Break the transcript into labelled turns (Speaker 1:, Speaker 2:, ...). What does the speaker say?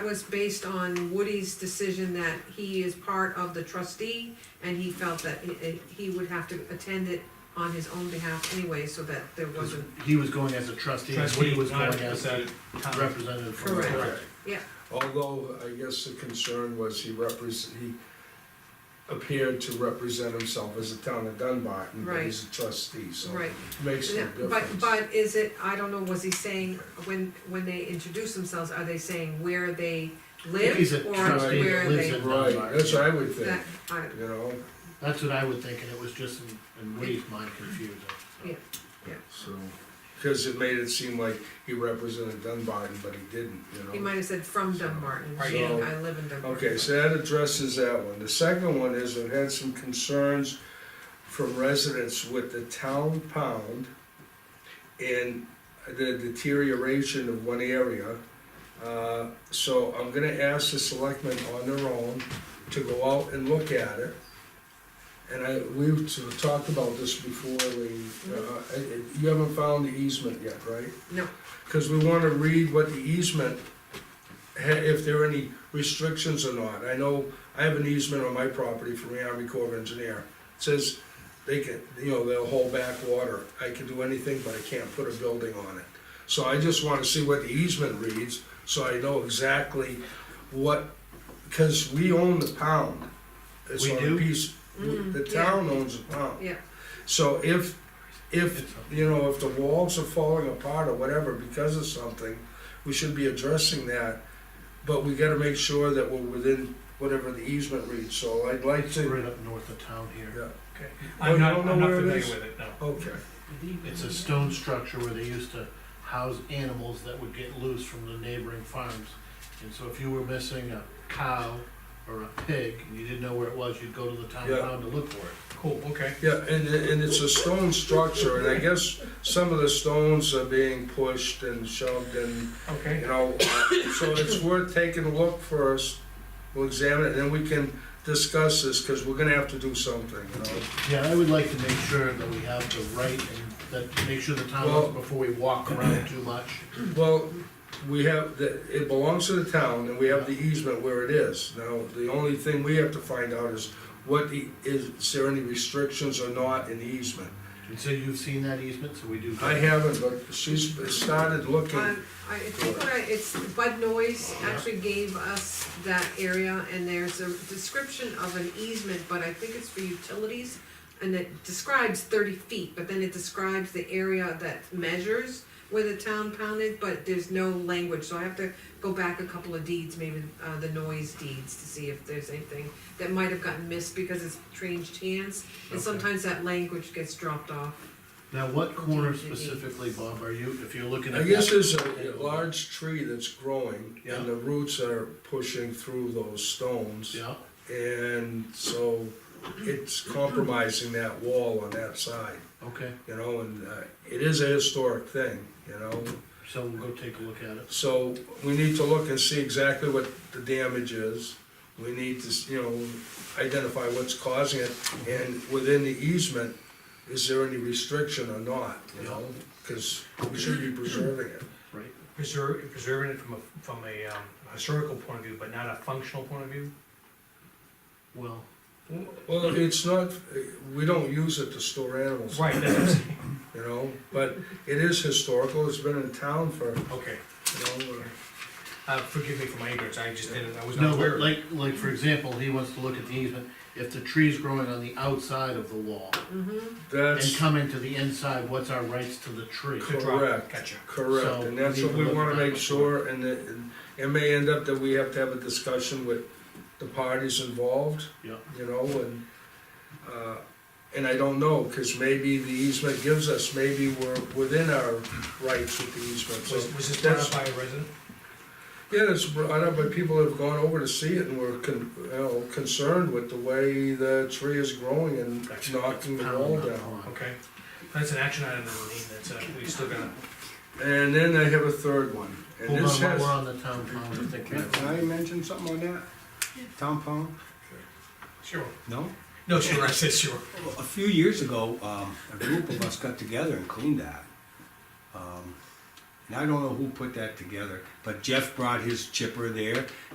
Speaker 1: That was based on Woody's decision that he is part of the trustee, and he felt that he- eh, he would have to attend it on his own behalf anyway, so that there wasn't,
Speaker 2: He was going as a trustee, and Woody was going as a
Speaker 3: Correct.
Speaker 2: representative from the
Speaker 1: Correct.
Speaker 2: board.
Speaker 1: yeah,
Speaker 4: Although, I guess the concern was he repres he appeared to represent himself as a town of Dunbarton, but he's a trustee, so
Speaker 1: right.
Speaker 4: it makes no
Speaker 1: But,
Speaker 4: difference.
Speaker 1: but is it, I don't know, was he saying, when, when they introduce themselves, are they saying where they live?
Speaker 2: He's a
Speaker 1: or
Speaker 2: trustee that
Speaker 1: where
Speaker 2: lives
Speaker 1: they-
Speaker 2: in-
Speaker 4: Right, that's what I would think,
Speaker 1: That, I,
Speaker 4: you know,
Speaker 2: That's what I would think, and it was just in, in Woody's mind confusing. so.
Speaker 1: Yeah.
Speaker 4: so, cause it made it seem like he represented Dunbarton, but he didn't, you know.
Speaker 1: he might have said from Dunbarton,
Speaker 3: Right,
Speaker 1: saying,
Speaker 4: so-
Speaker 1: I live in Dunbarton.
Speaker 4: Okay, so that addresses that one. The second one is I've had some concerns from residents with the town pound and the deterioration of one area. Uh, So I'm gonna ask the selectmen on their own to go out and look at it. And I, we've talked about this before, we, uh, you haven't found the easement yet, right?
Speaker 1: No,
Speaker 4: Because we wanna read what the easement, ha- if there are any restrictions or not. I know, I have an easement on my property from the Army Corps of Engineer. It Says they can, you know, they'll hold back water. I can do anything, but I can't put a building on it. So I just wanna see what the easement reads, so I know exactly what, because we own the pound. It's
Speaker 2: We
Speaker 4: on a
Speaker 2: do?
Speaker 4: piece- The
Speaker 1: Mm, yeah.
Speaker 4: town owns the pound.
Speaker 1: yeah,
Speaker 4: So if,
Speaker 2: It's
Speaker 4: if,
Speaker 2: a-
Speaker 4: you know, if the walls are falling apart or whatever because of something, we should be addressing that. But we gotta make sure that we're within whatever the easement reads, so I'd like
Speaker 2: It's
Speaker 4: to,
Speaker 2: right up north of town here.
Speaker 4: yeah,
Speaker 3: Okay.
Speaker 4: Oh, you
Speaker 3: I'm not,
Speaker 4: don't know
Speaker 3: I'm not
Speaker 4: where it
Speaker 3: familiar
Speaker 4: is?
Speaker 3: with it, no.
Speaker 4: okay.
Speaker 2: It's a stone structure where they used to house animals that would get loose from the neighboring farms. And so if you were missing a cow or a pig, and you didn't know where it was, you'd go to the town
Speaker 4: Yeah.
Speaker 2: pound to look for it.
Speaker 3: Cool, okay.
Speaker 4: Yeah, and, and it's a stone structure, and I guess some of the stones are being pushed and shoved and
Speaker 3: Okay.
Speaker 4: You know, so it's worth taking a look first, we'll examine it, and then we can discuss this, because we're gonna have to do something, you know?
Speaker 2: Yeah, I would like to make sure that we have the right, and that, make sure the town knows before we walk around too much.
Speaker 4: Well, we have, the- it belongs to the town, and we have the easement where it is. Now, the only thing we have to find out is what the, is, is there any restrictions or not in the easement?
Speaker 2: And so you've seen that easement, so we do.
Speaker 4: I haven't, but she's started looking,
Speaker 1: um, I, I think what I, it's Bud Noise actually gave us that area, and there's a description of an easement, but I think it's for utilities, and it describes thirty feet, but then it describes the area that measures where the town pounded, but there's no language, so I have to go back a couple of deeds, maybe, uh, the noise deeds, to see if there's anything that might have gotten missed because it's changed hands, and
Speaker 2: Okay.
Speaker 1: sometimes that language gets dropped off.
Speaker 2: Now, what corner specifically, Bob, are you, if you're looking at?
Speaker 4: I guess
Speaker 2: that-
Speaker 4: there's Uh, a a large tree that's growing,
Speaker 2: Yeah.
Speaker 4: and the roots are pushing through those stones.
Speaker 2: Yeah,
Speaker 4: And so it's compromising that wall on that side,
Speaker 2: okay,
Speaker 4: you know, and uh, it is a historic thing, you know?
Speaker 2: so we'll go take a look at it.
Speaker 4: So we need to look and see exactly what the damage is. We need to, you know, identify what's causing it, and within the easement, is there any restriction or not, you know? Because we should be preserving it.
Speaker 2: Right.
Speaker 3: Preserve, preserving it from a, from a, um, historical point of view, but not a functional point of view?
Speaker 2: Well,
Speaker 4: Well, it's not, we don't use it to store animals,
Speaker 3: Right, that's what I'm saying.
Speaker 4: you know, but it is historical, it's been in town for,
Speaker 3: Okay.
Speaker 4: you know,
Speaker 3: Uh, forgive me for my ignorance, I just didn't, I was not
Speaker 2: no,
Speaker 3: aware
Speaker 2: but
Speaker 3: of it.
Speaker 2: like, like, for example, he wants to look at the easement, if the tree's growing on the outside of the wall and
Speaker 4: that's.
Speaker 2: coming to the inside, what's our rights to the tree?
Speaker 3: To drop,
Speaker 4: correct.
Speaker 3: Gotcha.
Speaker 4: Correct,
Speaker 2: So,
Speaker 4: and that's what we
Speaker 2: leave it
Speaker 4: wanna
Speaker 2: open.
Speaker 4: make sure, and it, and it may end up that we have to have a discussion with the parties involved,
Speaker 2: Yeah,
Speaker 4: you know, and, uh, and I don't know, cause maybe the easement gives us, maybe we're within our rights with the easement, so.
Speaker 3: Was, was this brought
Speaker 4: that's-
Speaker 3: up by a resident?
Speaker 4: Yeah, it's brought up, but people have gone over to see it and were con, you know, concerned with the way the tree is growing and
Speaker 3: Gotcha.
Speaker 4: knocking the
Speaker 2: pound,
Speaker 4: wall
Speaker 2: not
Speaker 4: down.
Speaker 2: pond.
Speaker 3: Okay. That's an action item, that we need. that's, uh, we still gotta,
Speaker 4: And then I have a third one, and
Speaker 2: Hold on,
Speaker 4: this
Speaker 2: while
Speaker 4: has.
Speaker 2: we're on the town pound, I think we
Speaker 5: Can
Speaker 2: have,
Speaker 5: can I mention something on that? Town pound?
Speaker 3: sure.
Speaker 5: No?
Speaker 3: No, sure, I said sure.
Speaker 5: Well, A few years ago, um, a group of us got together and cleaned that. Um, And I don't know who put that together, but Jeff brought his chipper there